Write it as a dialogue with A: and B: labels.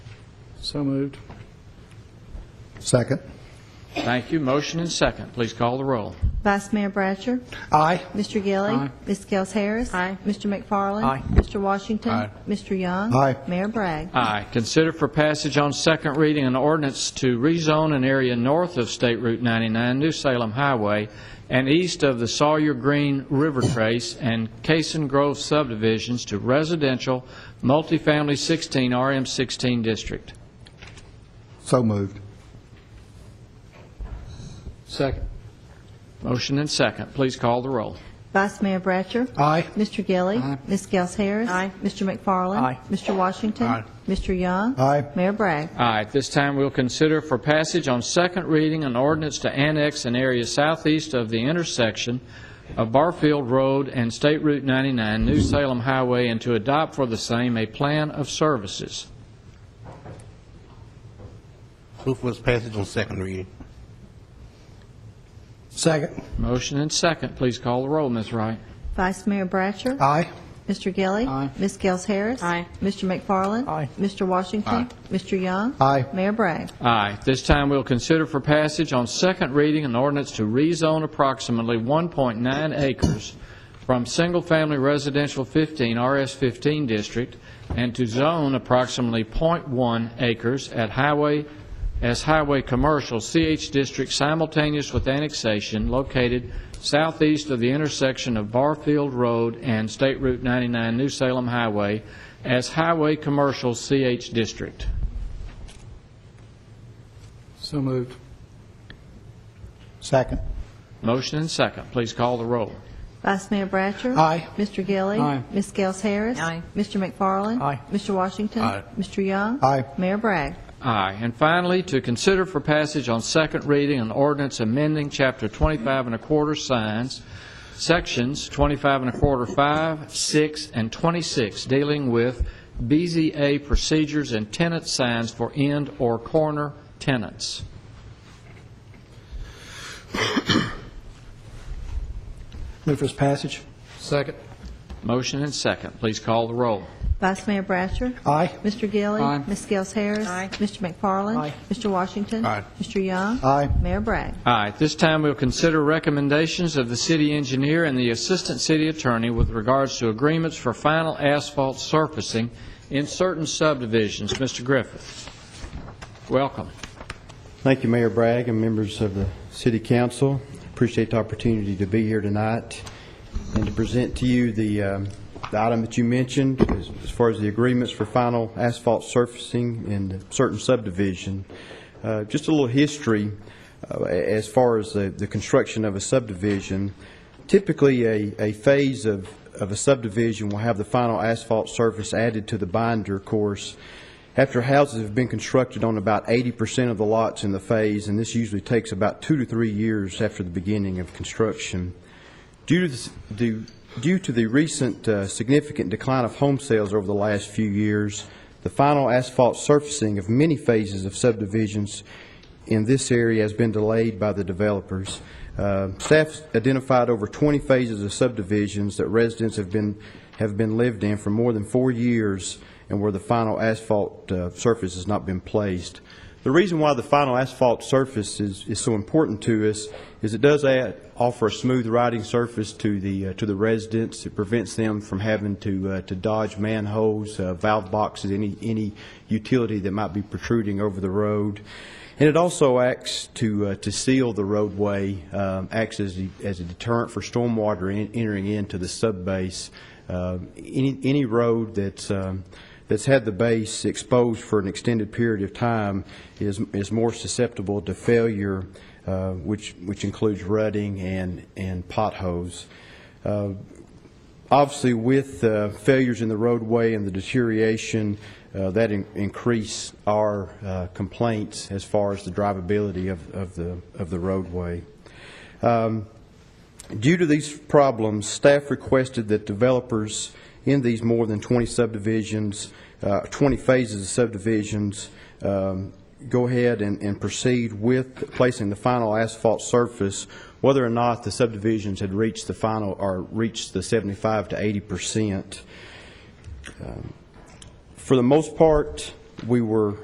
A: So moved.
B: Second.
C: Thank you. Motion and second. Please call the roll.
D: Vice Mayor Bratcher.
B: Aye.
D: Mr. Gilly.
A: Aye.
D: Ms. Gels Harris.
E: Aye.
D: Mr. McFarland.
B: Aye.
D: Mr. Washington.
C: Aye.
D: Mr. Young.
B: Aye.
D: Mayor Bragg.
C: Aye. Consider for passage on second reading an ordinance to rezone an area north of State Route 99, New Salem Highway, and east of the Sawyer Green River Trace and Cason Grove subdivisions to residential, multifamily 16, RM 16 district.
B: So moved.
A: Second.
C: Motion and second. Please call the roll.
D: Vice Mayor Bratcher.
B: Aye.
D: Mr. Gilly. Ms. Gels Harris.
E: Aye.
D: Mr. McFarland.
B: Aye.
D: Mr. Washington.
B: Aye.
D: Mr. Young.
B: Aye.
D: Mayor Bragg.
C: Aye. At this time, we'll consider for passage on second reading an ordinance to annex an area southeast of the intersection of Barfield Road and State Route 99, New Salem Highway, and to adopt for the same a plan of services.
F: Move for its passage on second reading.
B: Second.
C: Motion and second. Please call the roll, Ms. Wright.
D: Vice Mayor Bratcher.
B: Aye.
D: Mr. Gilly.
A: Aye.
D: Ms. Gels Harris.
E: Aye.
D: Mr. McFarland.
B: Aye.
D: Mr. Washington. Mr. Young.
B: Aye.
D: Mayor Bragg.
C: Aye. At This time, we'll consider for passage on second reading an ordinance to rezone approximately 1.9 acres from single-family residential 15, RS-15 district, and to zone approximately .1 acres at highway, as highway commercial, CH district simultaneous with annexation located southeast of the intersection of Barfield Road and State Route 99, New Salem Highway, as highway commercial, CH district.
A: So moved.
B: Second.
C: Motion and second. Please call the roll.
D: Vice Mayor Bratcher.
B: Aye.
D: Mr. Gilly.
A: Aye.
D: Ms. Gels Harris.
E: Aye.
D: Mr. McFarland.
B: Aye.
D: Mr. Washington.
F: Aye.
D: Mr. Young.
B: Aye.
D: Mayor Bragg.
C: Aye. And finally, to consider for passage on second reading an ordinance amending Chapter 25 and a quarter signs, Sections 25 and a quarter 5, 6, and 26, dealing with BZA procedures and tenant signs for end or corner tenants.
B: Move for its passage.
A: Second.
C: Motion and second. Please call the roll.
D: Vice Mayor Bratcher.
B: Aye.
D: Mr. Gilly.
A: Aye.
D: Ms. Gels Harris.
E: Aye.
D: Mr. McFarland.
B: Aye.
D: Mr. Washington.
F: Aye.
D: Mr. Young.
B: Aye.
D: Mayor Bragg.
C: All right, this time we'll consider recommendations of the city engineer and the assistant city attorney with regards to agreements for final asphalt surfacing in certain subdivisions. Mr. Griffith, welcome.
G: Thank you, Mayor Bragg and members of the City Council. Appreciate the opportunity to be here tonight and to present to you the um, the item that you mentioned as as far as the agreements for final asphalt surfacing in a certain subdivision. Uh, Just a little history uh, a- as far as the the construction of a subdivision. Typically, a a phase of of a subdivision will have the final asphalt surface added to the binder course after houses have been constructed on about 80% of the lots in the phase, and this usually takes about two to three years after the beginning of construction. Due to the s- due- due to the recent uh, significant decline of home sales over the last few years, the final asphalt surfacing of many phases of subdivisions in this area has been delayed by the developers. Uh, Staff identified over 20 phases of subdivisions that residents have been, have been lived in for more than four years and where the final asphalt uh, surface has not been placed. The reason why the final asphalt surface is, is so important to us is it does add, offer a smooth riding surface to the, uh, to the residents. It prevents them from having to, uh, to dodge manholes, uh, valve boxes, any, any utility that might be protruding over the road. And it also acts to, uh, to seal the roadway, um, acts as, a- as a deterrent for stormwater en- entering into the subbase. Uh, Any, any road that's, um, that's had the base exposed for an extended period of time is, is more susceptible to failure, uh, which, which includes rutting and, and potholes. Uh, Obviously, with uh, failures in the roadway and the deterioration, uh, that in- increase our uh, complaints as far as the drivability of of the of the roadway. Due to these problems, staff requested that developers in these more than 20 subdivisions, uh, 20 phases of subdivisions, um, go ahead and and proceed with placing the final asphalt surface, whether or not the subdivisions had reached the final, or reached the 75 to Um, 80 percent. For the most part, we were